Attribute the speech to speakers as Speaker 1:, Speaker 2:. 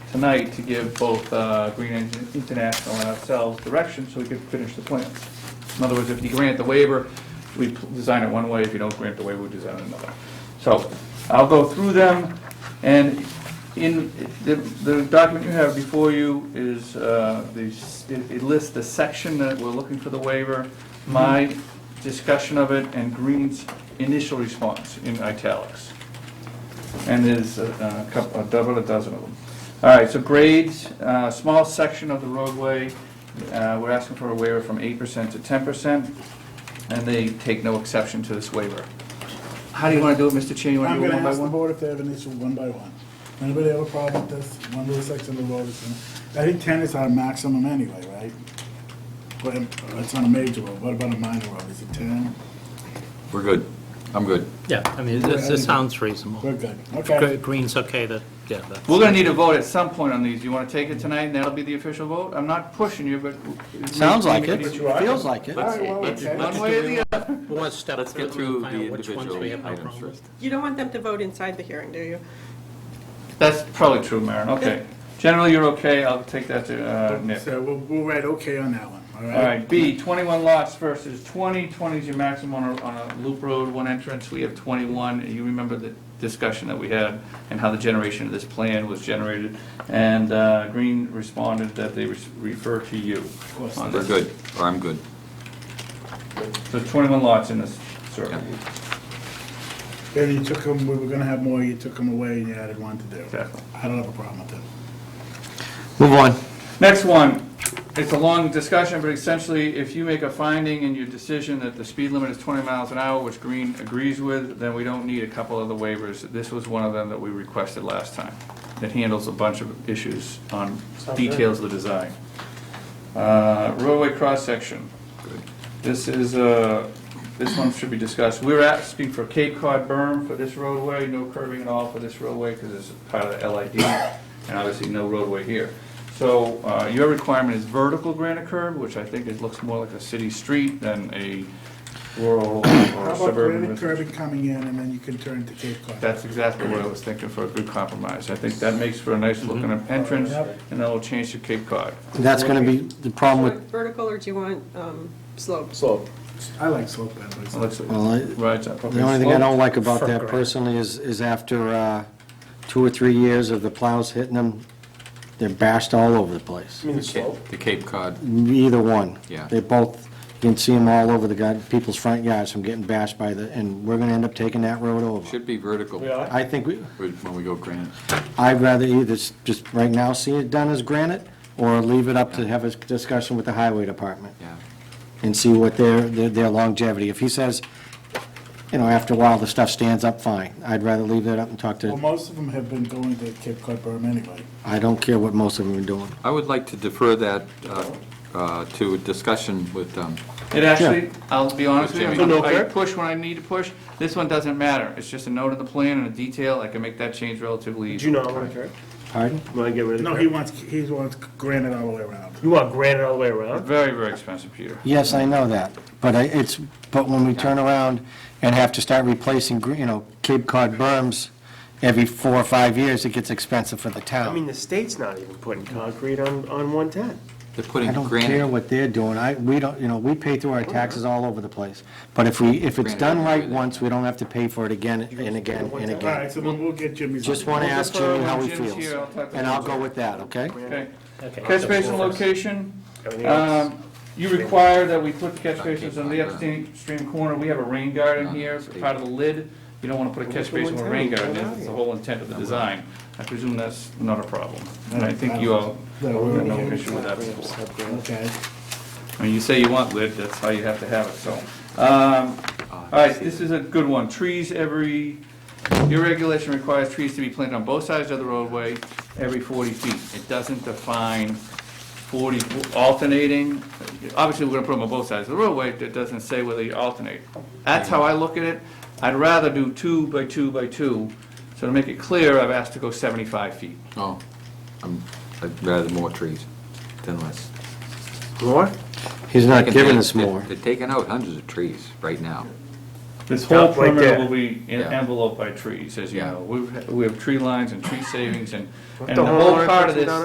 Speaker 1: tonight to give both uh, Green Engine International and ourselves direction so we could finish the plans. In other words, if you grant the waiver, we p- design it one way, if you don't grant the waiver, we design it another. So I'll go through them, and in, the- the document you have before you is, uh, the s- it it lists the section that we're looking for the waiver, my discussion of it, and Green's initial response in italics. And there's a- a couple, a double, a dozen of them. All right, so grades, uh, small section of the roadway, uh, we're asking for a waiver from eight percent to ten percent, and they take no exception to this waiver. How do you want to do it, Mr. Cheney? You want
Speaker 2: I'm
Speaker 1: to do it
Speaker 2: gonna
Speaker 1: one by
Speaker 2: ask the
Speaker 1: one?
Speaker 2: board if they have an issue one by one. Anybody have a problem with this, one little section of the road is, in- I think ten is our maximum anyway, right? But uh, it's on a major road, what about a minor road, is it ten?
Speaker 3: We're good. I'm good.
Speaker 4: Yeah, I mean, this, this sounds reasonable.
Speaker 2: We're good, okay.
Speaker 4: Green's okay to, yeah, that's-
Speaker 1: We're going to need a vote at some point on these. You want to take it tonight, and that'll be the official vote? I'm not pushing you, but.
Speaker 5: Sounds like it,
Speaker 1: You are.
Speaker 5: feels like it.
Speaker 2: All right, well, okay.
Speaker 1: One way or the other.
Speaker 4: we'll let's step
Speaker 3: Let's
Speaker 4: through
Speaker 3: get
Speaker 4: and
Speaker 3: through the
Speaker 4: find out which ones
Speaker 3: individual
Speaker 4: we have no
Speaker 3: items
Speaker 4: problem
Speaker 3: first.
Speaker 4: with.
Speaker 6: You don't want them to vote inside the hearing, do you?
Speaker 1: That's probably true, Maren, okay. Generally, you're okay, I'll take that to uh, Nick.
Speaker 2: So we'll, we'll write okay on that one, all right?
Speaker 1: All right, B, 21 lots versus 20, 20 is your maximum on a, on a loop road, one entrance, we have 21. You remember the discussion that we had and how the generation of this plan was generated, and uh, Green responded that they res- refer to you
Speaker 2: course.
Speaker 1: on
Speaker 3: We're
Speaker 1: this.
Speaker 3: good, or I'm good.
Speaker 1: So 21 lots in this circle.
Speaker 3: Yeah.
Speaker 2: And you took them, we were gonna have more, you took them away and you added one to do.
Speaker 1: Exactly.
Speaker 2: I don't have a problem with that.
Speaker 5: Move on.
Speaker 1: Next one, it's a long discussion, but essentially, if you make a finding in your decision that the speed limit is 20 miles an hour, which Green agrees with, then we don't need a couple of the waivers. This was one of them that we requested last time. It handles a bunch of issues on details of the design. Uh, Roadway cross-section. This is, uh, this one should be discussed. We're asking for Cape Cod berm for this roadway, no curving at all for this roadway because it's part of the LID, and obviously no roadway here. So uh, your requirement is vertical granite curb, which I think it looks more like a city street than a rural
Speaker 2: How
Speaker 1: or
Speaker 2: about
Speaker 1: suburban.
Speaker 2: granite
Speaker 1: residential.
Speaker 2: curbing coming in and then you can turn to Cape Cod?
Speaker 1: That's exactly what I was thinking for a good compromise. I think that makes for a nice looking entrance,
Speaker 2: Mm-hmm. Yep.
Speaker 1: and that'll change to Cape Cod.
Speaker 5: That's gonna be the problem with,
Speaker 6: Vertical, or do you want um, slopes?
Speaker 7: So,
Speaker 2: I like slope that way.
Speaker 1: Looks like-
Speaker 5: well, I-
Speaker 1: Right, up.
Speaker 5: the only thing I don't like about
Speaker 4: For
Speaker 5: that
Speaker 4: granted.
Speaker 5: personally is, is after uh, two or three years of the plows hitting them, they're bashed all over the place.
Speaker 7: I mean, the slope,
Speaker 3: The Cape Cod,
Speaker 5: Either one.
Speaker 3: Yeah.
Speaker 5: They both, you can see them all over the guy, people's front yards from getting bashed by the, and we're gonna end up taking that road over.
Speaker 3: should be vertical
Speaker 7: we are.
Speaker 5: I think, we-
Speaker 3: with- when we go granite.
Speaker 5: I'd rather either s- just right now see it done as granite, or leave it up to have a discussion with the highway department.
Speaker 3: Yeah,
Speaker 5: and see what their, their their longevity. If he says, you know, after a while, the stuff stands up, fine. I'd rather leave that up and talk
Speaker 2: Well,
Speaker 5: to,
Speaker 2: most of them have been going to Cape Cod berm anyway.
Speaker 5: I don't care what most of them are doing.
Speaker 3: I would like to defer that uh, uh, to a discussion with, um,
Speaker 1: It actually, I'll be honest with
Speaker 3: Jimmy.
Speaker 1: you,
Speaker 7: No
Speaker 1: I
Speaker 7: curb?
Speaker 1: push when I need to push. This one doesn't matter. It's just a note in the plan and a detail. I can make that change relatively
Speaker 7: Do
Speaker 1: easy.
Speaker 7: you know I want to curb?
Speaker 5: Pardon?
Speaker 7: Want to get rid of the
Speaker 2: No,
Speaker 7: curb?
Speaker 2: he wants, he wants granite all the way around.
Speaker 7: You want granite all the way around?
Speaker 1: Very, very expensive, Peter.
Speaker 5: Yes, I know that, but I, it's, but when we turn around and have to start replacing, gre- you know, Cape Cod berms every four or five years, it gets expensive for the
Speaker 7: I mean,
Speaker 5: town.
Speaker 7: the state's not even putting concrete on, on 110.
Speaker 3: they're putting
Speaker 5: I don't care
Speaker 3: granite.
Speaker 5: what they're doing. I, we don't, you know, we pay through our taxes all over the place. But if we, if it's
Speaker 3: Granted,
Speaker 5: done
Speaker 3: I agree
Speaker 5: right
Speaker 3: with that.
Speaker 5: once, we don't have to pay for it again and again and
Speaker 2: All
Speaker 5: again.
Speaker 2: right, so then we'll get Jimmy's.
Speaker 5: Just want to
Speaker 1: We'll
Speaker 5: ask
Speaker 1: defer
Speaker 5: Jimmy how
Speaker 1: when
Speaker 5: he
Speaker 1: Jim's here. I'll
Speaker 5: feels,
Speaker 1: talk to
Speaker 5: and
Speaker 1: him.
Speaker 5: I'll go with that, okay?
Speaker 1: Okay.
Speaker 4: Okay.
Speaker 1: Catch basin location,
Speaker 7: Everything else-
Speaker 1: um, you require that we put catch basins on the upstream stream corner. We have a rain garden here, for part of the lid. You don't want to put a catch basin with a rain garden. in. That's the whole intent of the design. I presume that's not a problem. And I think you all,
Speaker 2: No,
Speaker 1: all
Speaker 2: we're
Speaker 1: had no
Speaker 2: okay.
Speaker 1: issue with that before.
Speaker 2: Okay.
Speaker 1: I mean, you say you want lid, that's how you have to have it, so. Um, All right, this is a good one. Trees every, your regulation requires trees to be planted on both sides of the roadway every 40 feet. It doesn't define 40 alternating, obviously, we're gonna put them on both sides of the roadway, it doesn't say whether you alternate. That's how I look at it. I'd rather do two by two by two, so to make it clear, I've asked to go 75 feet.
Speaker 3: Oh, I'm, I'd rather more trees than less.
Speaker 7: More?
Speaker 5: He's not
Speaker 3: They're-
Speaker 5: giving us
Speaker 3: they're-
Speaker 5: more.
Speaker 3: They're taking out hundreds of trees right now.
Speaker 1: This whole
Speaker 7: Stuff like
Speaker 1: perimeter
Speaker 7: that.
Speaker 1: will be en-
Speaker 3: Yeah.
Speaker 1: enveloped by trees, as you
Speaker 3: Yeah.
Speaker 1: know. We've, we have tree lines and tree savings and, and
Speaker 7: the
Speaker 1: the whole
Speaker 7: homeowner
Speaker 1: part of
Speaker 7: puts it
Speaker 1: this
Speaker 7: down